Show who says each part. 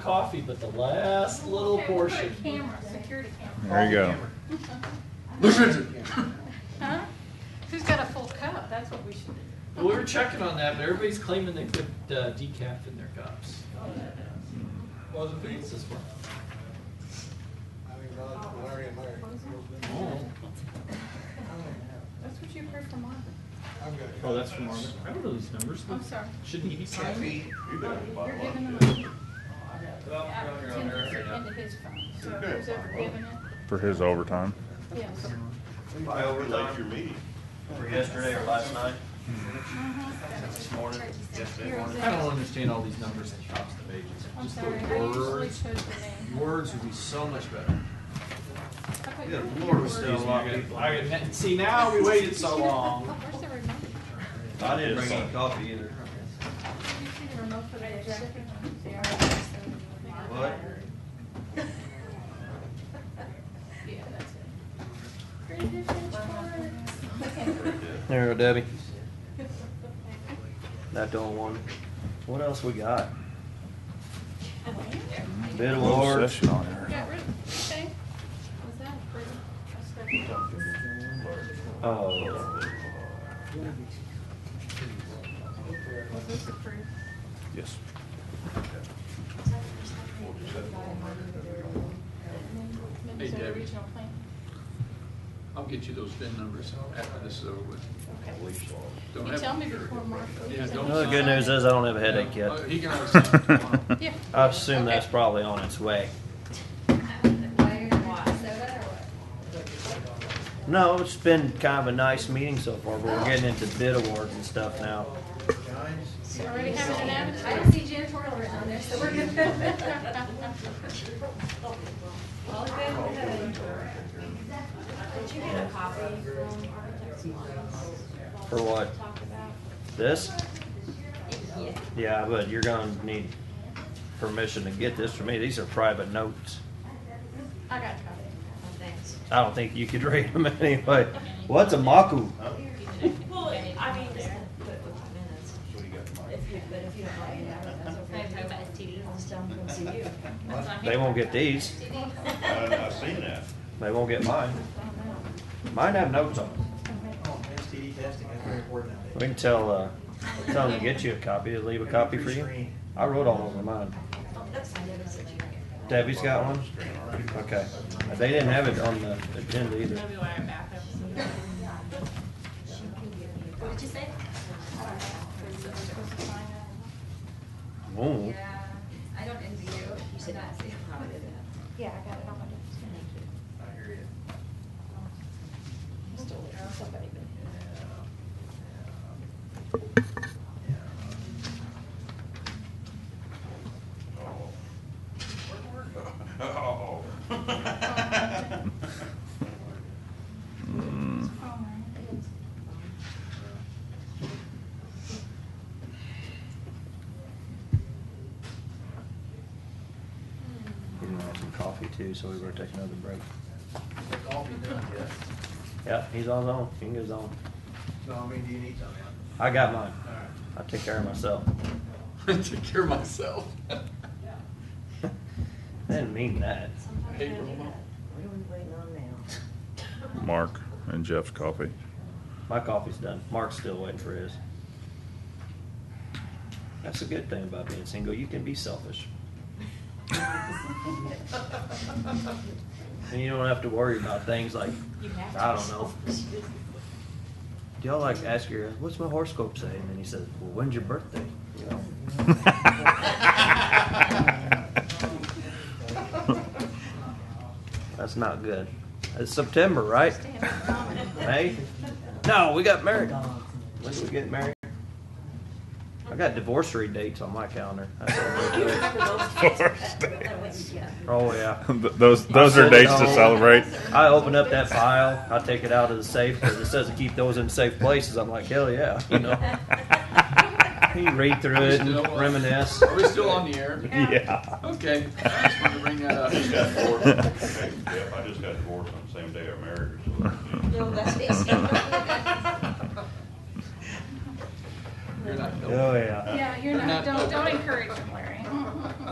Speaker 1: coffee, but the last little
Speaker 2: Okay, we'll put a
Speaker 1: portion.
Speaker 2: Camera, security camera.
Speaker 3: There you go.
Speaker 2: Huh? Who's got a full cup? That's what we should do.
Speaker 1: We were checking on that, but everybody's claiming they put uh, decaf in their cups.
Speaker 4: Wasn't me.
Speaker 1: What's this one?
Speaker 4: I mean, Rod, Larry and Larry.
Speaker 1: Oh,
Speaker 2: That's what you heard from Marvin.
Speaker 4: I've got.
Speaker 5: Oh, that's from Marvin.
Speaker 1: I don't know these numbers.
Speaker 2: I'm sorry.
Speaker 1: Shouldn't he be counting?
Speaker 2: You're giving them the opportunity to into his phone. So who's ever given it,
Speaker 3: for his overtime.
Speaker 2: yes.
Speaker 6: I overlaid your meeting.
Speaker 7: For yesterday or last night,
Speaker 2: Mhm.
Speaker 7: this morning, yesterday
Speaker 2: You're
Speaker 7: morning.
Speaker 1: I don't
Speaker 2: exactly,
Speaker 1: understand all these numbers and chops and pages.
Speaker 2: I'm
Speaker 1: Just the
Speaker 2: sorry, I usually
Speaker 1: words.
Speaker 2: show the name.
Speaker 1: Words would be so much better.
Speaker 2: I thought you
Speaker 7: Good
Speaker 2: were-
Speaker 7: Lord, we still
Speaker 1: Excuse
Speaker 7: a
Speaker 1: me,
Speaker 7: lot
Speaker 1: I
Speaker 7: of
Speaker 1: got-
Speaker 7: people.
Speaker 1: uh, I got- See, now we waited so long.
Speaker 2: Where's the remote?
Speaker 7: I didn't bring any coffee either.
Speaker 2: Did you see the remote for that jacket?
Speaker 7: What?
Speaker 2: Yeah, that's it. Great defense, Mark.
Speaker 7: There you go, Debbie. That don't want. What else we got? Bid
Speaker 3: Little
Speaker 7: awards.
Speaker 3: session on here.
Speaker 2: Got rid of, okay. Was that approved? I stuck it.
Speaker 7: Oh,
Speaker 2: Was this approved?
Speaker 3: Yes.
Speaker 2: Minnesota
Speaker 4: Debbie.
Speaker 2: Regional Plan?
Speaker 4: I'll get you those VIN numbers after this is over with.
Speaker 2: Okay.
Speaker 4: Don't
Speaker 2: You
Speaker 4: have-
Speaker 2: tell me before Mark leaves.
Speaker 4: Yeah,
Speaker 2: and
Speaker 4: don't
Speaker 2: you
Speaker 7: Well, Oh, the good
Speaker 2: sign
Speaker 7: news
Speaker 2: it.
Speaker 7: is I don't Oh, have a headache
Speaker 4: Uh,
Speaker 7: yet.
Speaker 4: He can always sign it tomorrow.
Speaker 2: Yeah.
Speaker 7: I assume that's
Speaker 2: Okay.
Speaker 7: probably on its way. No, it's been kind of a nice meeting so far, but we're getting into bid awards and stuff now.
Speaker 2: You Already having an
Speaker 8: I
Speaker 2: avatar.
Speaker 8: don't see janitorial written on there, so we're good. All good. Did you get a copy from Architects Alliance?
Speaker 7: For what?
Speaker 8: Talked about?
Speaker 7: This?
Speaker 8: Yeah.
Speaker 7: Yeah, but you're gonna need permission to get this from me. These are private notes.
Speaker 2: I got a copy.
Speaker 8: Thanks.
Speaker 7: I don't think you could read them anyway. What's a maku?
Speaker 8: Well, I mean, just put it with the minutes. If you, but if you don't like it, I don't know, that's okay. I'll just dump them to you.
Speaker 7: They won't get these.
Speaker 6: I've seen that.
Speaker 7: They won't get mine. Mine have notes on them.
Speaker 9: STD testing is very important nowadays.
Speaker 7: We can tell, uh, tell them to get you a copy, to leave a copy for you. I wrote all over mine.
Speaker 8: That's fine, that's what you get.
Speaker 7: Debbie's got one? Okay. They didn't have it on the agenda either.
Speaker 2: Maybe why I'm back up.
Speaker 8: What did you say?
Speaker 7: Ooh.
Speaker 8: I don't envy you. You said that.
Speaker 2: Yeah, I got it on my desk.
Speaker 9: I hear you.
Speaker 8: Stole it from somebody, but.
Speaker 6: Oh.
Speaker 3: Mm.
Speaker 7: We're gonna have some coffee too, so we're gonna take another break.
Speaker 9: It's all been done, yes.
Speaker 7: Yep, he's on his own. He can get his own.
Speaker 9: So I mean, do you need something?
Speaker 7: I got mine.
Speaker 9: All right.
Speaker 7: I take care of myself.
Speaker 4: I Take care of myself.
Speaker 7: I didn't mean that.
Speaker 4: Hey, Roma.
Speaker 8: What are we waiting on now?
Speaker 3: Mark and Jeff's coffee.
Speaker 7: My coffee's done. Mark's still waiting for his. That's a good thing about being single. You can be selfish. and you don't have to worry about things like I don't know. Do y'all like ask your what's my horoscope say? And then he says, Well when's your birthday? You know. That's not good. It's September, right? May? No, we got married. When did we get married? I got divorcee dates on my calendar. That's all we do. Oh, yeah.
Speaker 3: Th- Those, those are dates to celebrate.
Speaker 7: I open up that file, I take it out of the safe, because it says to keep those in safe places. I'm like, hell yeah, you know. You read through it and reminisce.
Speaker 4: Are we still on the air?
Speaker 3: Yeah.
Speaker 4: Okay, I just wanted to bring that
Speaker 6: I just got
Speaker 4: up.
Speaker 6: divorced. Yep, I just got divorced on the same day I married her.
Speaker 8: No, that's
Speaker 4: You're not helping.
Speaker 7: Oh, yeah.
Speaker 2: Yeah, you're
Speaker 4: They're
Speaker 2: not,
Speaker 4: not
Speaker 7: Oh,
Speaker 2: don't, don't
Speaker 4: open.
Speaker 2: encourage him, Larry.